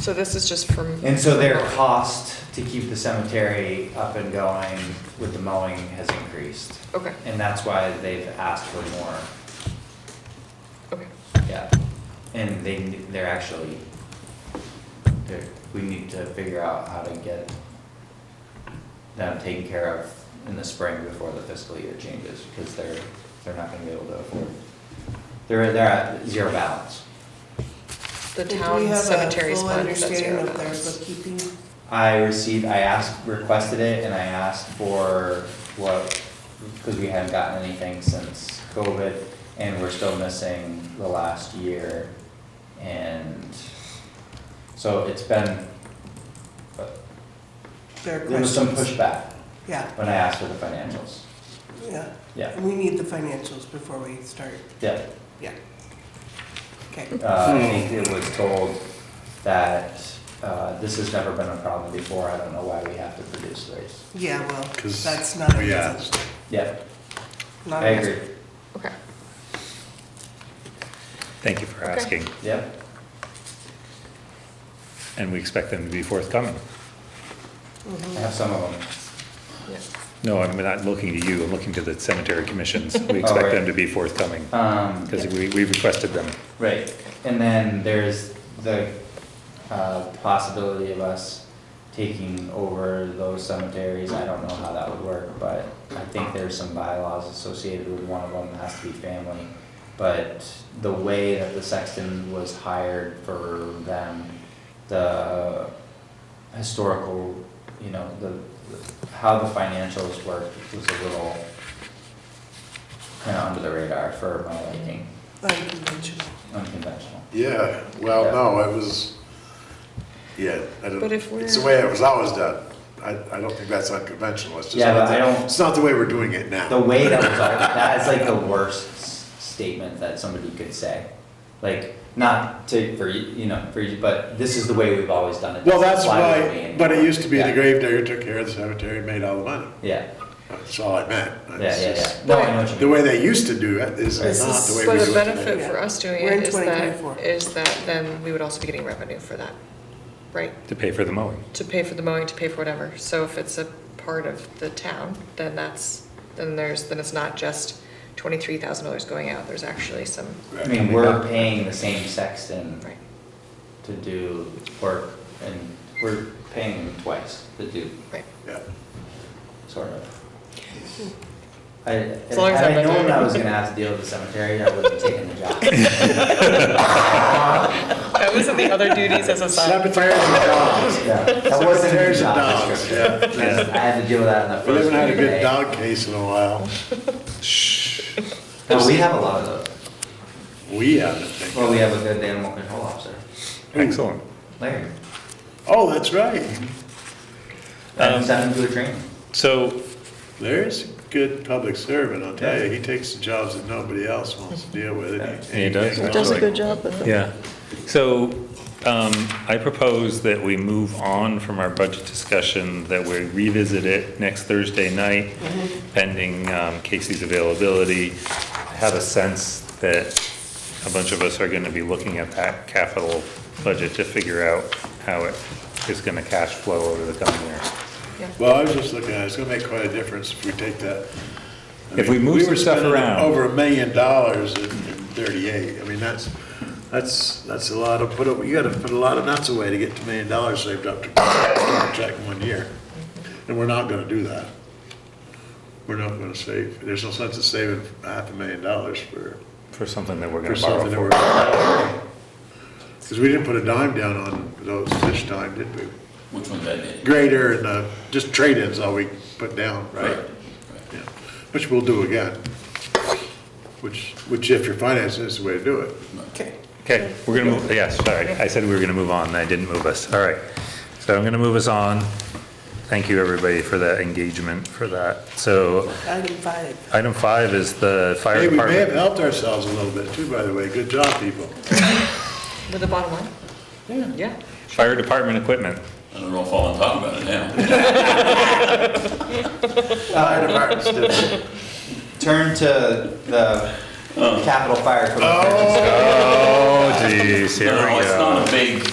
So this is just from. And so their cost to keep the cemetery up and going with the mowing has increased. Okay, And that's why they've asked for more, okay, yeah. And they, they're actually, they're, we need to figure out how to get them taken care of in the spring before the fiscal year changes, because they're, they're not gonna be able to afford. They're, they're at zero balance. the Do we town have a cemetery full fund, that's understanding zero of their dollars. bookkeeping? I received, I asked, requested it, and I asked for what, because we hadn't gotten anything since COVID, and we're still missing the last year. And so it's been, but Their there was some questions? pushback Yeah, when I asked for the financials. yeah. Yeah, We need the financials before we start, yeah. yeah. Okay, Uh, I think it was told that, uh, this has never been a problem before, I don't know why we have to produce these. yeah, well, 'Cause that's not a we reason. asked. Yeah, Not I a reason. agree, Okay, Thank you for Okay. asking, yeah. and we expect them to be forthcoming. I have some of them. yeah, No, I'm not looking to you, I'm looking to the cemetery commissions. We Oh, right. expect them to be forthcoming, Um, because we, we requested them. Right, and then there's the uh, possibility of us taking over those cemeteries, I don't know how that would work, but I think there's some bylaws associated with one of them, that has to be family. But the way that the sexton was hired for them, the historical, you know, the, the- how the financials worked was a little kind of under the radar for my liking, Unconventional. unconventional. Yeah, well, Yeah. no, it was, yeah, I don't, But if we're- it's the way it was always done. I, I don't think that's unconventional, it's just. Yeah, not but I the- don't- It's not the way we're doing it now. The way that was, that is like the worst s- statement that somebody could say. Like, not to, for, you you know, for, you but this is the way we've always done it. Well, This that's is why we're why, doing but it used to be the Yeah. gravedigger took care of the cemetery and made all the money. Yeah, That's all I meant. yeah, It's yeah, yeah. just- No, I know what you mean. The way they used to do it is This not the way But we the do it benefit today. for us doing We're in it is that, 2024. is that then we would also be getting revenue for that, right? To pay for the mowing. To pay for the mowing, to pay for whatever. So if it's a part of the town, then that's, then there's, then it's not just twenty-three thousand dollars going out, there's actually some, I Right. mean, we're paying the same Hmm. sexton right? to do work and we're paying him twice to do, Right. Yeah. sort of. I, if long Hmm. as I I'm not known doing I it. was gonna have to deal with the cemetery, I wouldn't have taken the job. That wasn't the other duties as a side. Cemeteries and dogs. Yeah, That wasn't a Cemeteries and job dogs, description. yeah. I had to deal with that in the first. We haven't had a meeting good today. dog case in a while. Shh. No, we have a lot of those. We haven't. thank Well, we have a good animal control officer, Mm. Excellent. Larry. Oh, that's right. I Um, sent him to a training. So, There's a good public servant, I'll tell you. He takes the jobs that nobody else wants to deal with. and He does. hangs on Does a to good it. job with yeah, so, um, I propose that we move on from our budget discussion, that we revisit it next Thursday night, pending, um, Casey's availability. I have a sense that a bunch of us are gonna be looking at that capital budget to figure out how it is gonna cash flow over the coming year. Well, I was just looking at it, it's gonna make quite a difference if we take that. I If we mean, move some were stuff spending around. Over a million dollars in in thirty-eight, I mean, that's, that's, that's a lot of, put, a- you gotta put a lot of nuts away to get a million dollars saved up to start a check in one year. And we're not gonna do that. We're not gonna save, there's no sense in saving half a million dollars for For something that we're for gonna borrow something that for. we're. Because we didn't put a dime down on those this time, did we? Which one that is? Grader and, uh, just trade-ins all we put down, right? Yeah, Which we'll do again. Which, which if you're financing, is the way to do it. Okay. Okay, we're gonna move, yeah, sorry, I said we were gonna move on, and I didn't move us, all right. So I'm gonna move us on. Thank you, everybody, for that engagement, for that. So, Item five. item five is the fire Hey, we may have department. helped ourselves a little bit too, by the way. Good job, people. With the bottom line? Yeah. Yeah. Fire department equipment. I don't know if I want to talk about it now. Fire department's different. Turn to the Capitol Fire Code. Oh, Oh, geez, here we No, go. it's not a big